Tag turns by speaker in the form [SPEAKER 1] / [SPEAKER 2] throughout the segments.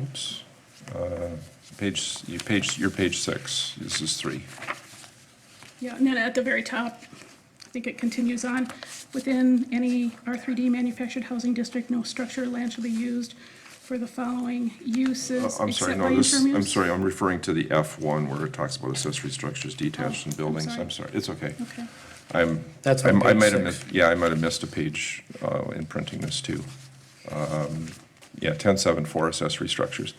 [SPEAKER 1] Oops. Uh, Page, you page, your page six, this is three.
[SPEAKER 2] Yeah, and then at the very top, I think it continues on, within any R3D manufactured housing district, no structure or land shall be used for the following
[SPEAKER 1] Uh,
[SPEAKER 2] uses.
[SPEAKER 1] I'm sorry,
[SPEAKER 2] except
[SPEAKER 1] no,
[SPEAKER 2] by
[SPEAKER 1] this,
[SPEAKER 2] interim
[SPEAKER 1] I'm
[SPEAKER 2] use.
[SPEAKER 1] sorry, I'm referring to the F one where it talks about accessory structures detached
[SPEAKER 2] Oh,
[SPEAKER 1] in
[SPEAKER 2] I'm
[SPEAKER 1] buildings.
[SPEAKER 2] sorry.
[SPEAKER 1] I'm sorry, it's okay.
[SPEAKER 2] Okay,
[SPEAKER 1] I'm,
[SPEAKER 3] That's
[SPEAKER 1] I'm-
[SPEAKER 3] on
[SPEAKER 1] I
[SPEAKER 3] page
[SPEAKER 1] might have
[SPEAKER 3] six.
[SPEAKER 1] missed, yeah, I might have missed a page uh, in printing this too. Um, Yeah, ten seven four accessory structures.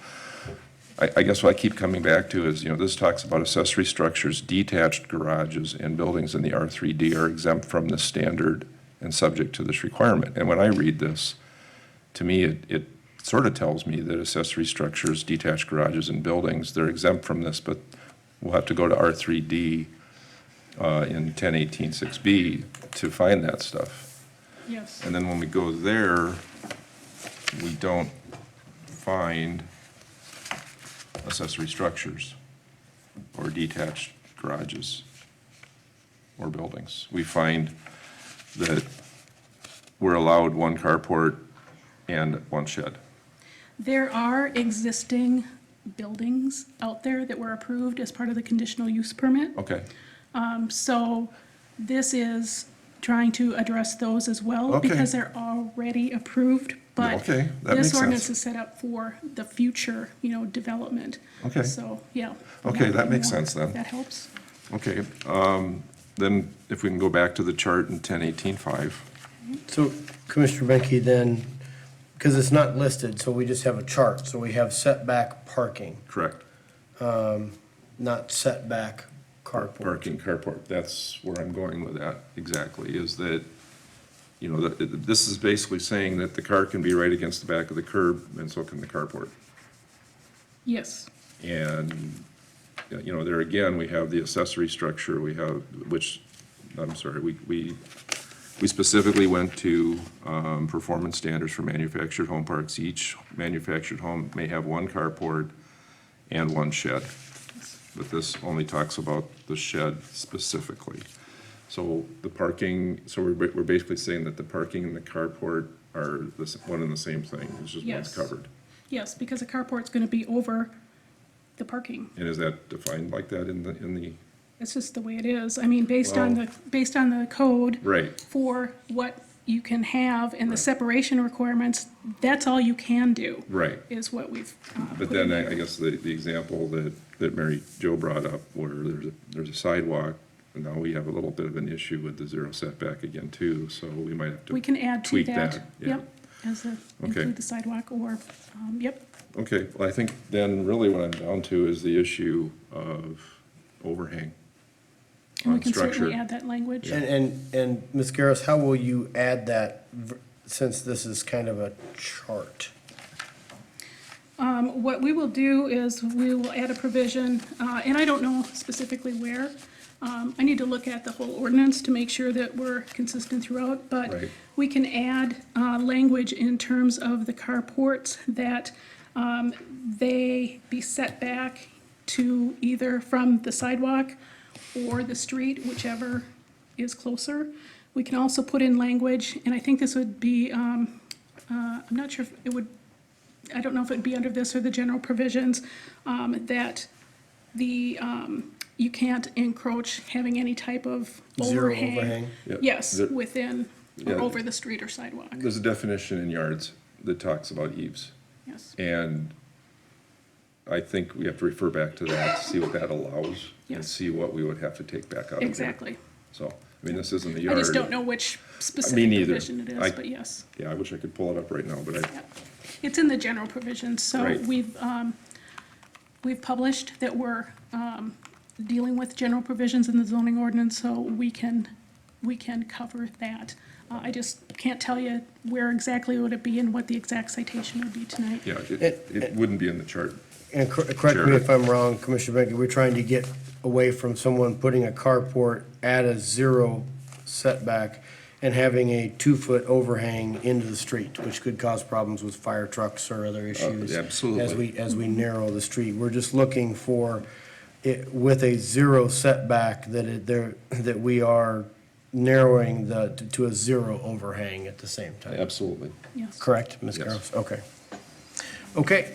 [SPEAKER 1] I, I guess what I keep coming back to is, you know, this talks about accessory structures, detached garages and buildings in the R three D are exempt from this standard and subject to this requirement. And when I read this, to me, it, it sort of tells me that accessory structures, detached garages and buildings, they're exempt from this, but we'll have to go to R three D uh, in ten eighteen six B to find that stuff.
[SPEAKER 2] yes.
[SPEAKER 1] And then when we go there, we don't find accessory structures or detached garages or buildings. We find that we're allowed one carport and one shed.
[SPEAKER 2] There are existing buildings out there that were approved as part of the conditional use permit.
[SPEAKER 1] Okay,
[SPEAKER 2] Um, So this is trying to address those as well
[SPEAKER 1] Okay.
[SPEAKER 2] because they're already approved. But
[SPEAKER 1] Okay, that makes
[SPEAKER 2] this
[SPEAKER 1] sense.
[SPEAKER 2] ordinance is set up for the future, you know, development.
[SPEAKER 1] Okay.
[SPEAKER 2] So, yeah.
[SPEAKER 1] Okay, that makes
[SPEAKER 2] Yeah,
[SPEAKER 1] sense then.
[SPEAKER 2] That helps.
[SPEAKER 1] okay. um, Then if we can go back to the chart in ten eighteen five.
[SPEAKER 3] So Commissioner Benke, then, because it's not listed, so we just have a chart. So we have setback parking,
[SPEAKER 1] Correct.
[SPEAKER 3] not setback carport.
[SPEAKER 1] Parking carport, that's where I'm going with that, exactly, is that, you know, that- that- this is basically saying that the car can be right against the back of the curb, and so can the carport.
[SPEAKER 2] Yes,
[SPEAKER 1] And, you know, there again, we have the accessory structure, we have, which, I'm sorry, we, we, we specifically went to, um, performance standards for manufactured home parks. Each manufactured home may have one carport and one shed. But this only talks about the shed specifically. So the parking, so we're, ba- we're basically saying that the parking and the carport are the, s- one and the same thing, it's just one's
[SPEAKER 2] Yes.
[SPEAKER 1] covered.
[SPEAKER 2] yes, because a carport's gonna be over the parking.
[SPEAKER 1] And is that defined like that in the, in the?
[SPEAKER 2] It's just the way it is. I mean, based on
[SPEAKER 1] Well-
[SPEAKER 2] the, based on the code.
[SPEAKER 1] Right.
[SPEAKER 2] For what you can have and the
[SPEAKER 1] Right.
[SPEAKER 2] separation requirements, that's all you can do.
[SPEAKER 1] Right.
[SPEAKER 2] Is what we've. uh,
[SPEAKER 1] But
[SPEAKER 2] put
[SPEAKER 1] then
[SPEAKER 2] in
[SPEAKER 1] I,
[SPEAKER 2] there.
[SPEAKER 1] I guess the, the example that, that Mary Jo brought up where there's, a there's a sidewalk, and now we have a little bit of an issue with the zero setback again too, so we might have to.
[SPEAKER 2] We can add to
[SPEAKER 1] tweak
[SPEAKER 2] that.
[SPEAKER 1] yeah.
[SPEAKER 2] Yep, as a, include the sidewalk or, um, yep,
[SPEAKER 1] Okay, well, I think then really what I'm down to is the issue of overhang.
[SPEAKER 2] and we
[SPEAKER 1] on
[SPEAKER 2] can certainly
[SPEAKER 1] structure.
[SPEAKER 2] add that language.
[SPEAKER 3] And, and, and Ms. Garris, how will you add that v- since this is kind of a chart?
[SPEAKER 2] Um, What we will do is we will add a provision, uh, and I don't know specifically where. Um, I need to look at the whole ordinance to make sure that we're consistent throughout, but
[SPEAKER 1] Right.
[SPEAKER 2] we can add uh, language in terms of the carports that um, they be set back to either from the sidewalk or the street, whichever is closer. We can also put in language, and I think this would be, um, uh, I'm not sure if it would I don't know if it'd be under this or the general provisions, um, that the, um, you can't encroach having any type of
[SPEAKER 3] Zero
[SPEAKER 2] overhang.
[SPEAKER 3] overhang.
[SPEAKER 1] Yep.
[SPEAKER 2] Yes,
[SPEAKER 1] The-
[SPEAKER 2] within,
[SPEAKER 1] Yeah.
[SPEAKER 2] or over the street or sidewalk,
[SPEAKER 1] There's a definition in yards that talks about eaves,
[SPEAKER 2] yes,
[SPEAKER 1] and I think we have to refer back to that, see what that allows, and
[SPEAKER 2] Yes.
[SPEAKER 1] see what we would have to take back out of there.
[SPEAKER 2] exactly.
[SPEAKER 1] So, I mean, this isn't a
[SPEAKER 2] I
[SPEAKER 1] yard.
[SPEAKER 2] just don't know which specific
[SPEAKER 1] neither.
[SPEAKER 2] provision it
[SPEAKER 1] I-
[SPEAKER 2] is, but yes.
[SPEAKER 1] Yeah, I wish I could pull it up right now, but I,
[SPEAKER 2] It's in the general provisions, so
[SPEAKER 1] Right.
[SPEAKER 2] we've, um, we've published that we're, um, dealing with general provisions in the zoning ordinance, so we can, we can cover that. Uh, I just can't tell you where exactly would it be and what the exact citation would be tonight.
[SPEAKER 1] yeah, it,
[SPEAKER 3] It-
[SPEAKER 1] it wouldn't be in the chart.
[SPEAKER 3] And cor- correct
[SPEAKER 1] Sure.
[SPEAKER 3] me if I'm wrong, Commissioner Benke, we're trying to get away from someone putting a carport at a zero setback and having a two-foot overhang into the street, which could cause problems with fire trucks or other issues.
[SPEAKER 1] Oh, absolutely.
[SPEAKER 3] As we, as we narrow the street. We're just looking for it with a zero setback that it, there, that we are narrowing the, to a zero overhang at the same time.
[SPEAKER 1] Absolutely.
[SPEAKER 2] Yes.
[SPEAKER 3] Correct, Ms.
[SPEAKER 1] Yes.
[SPEAKER 3] Garros? Okay. Okay,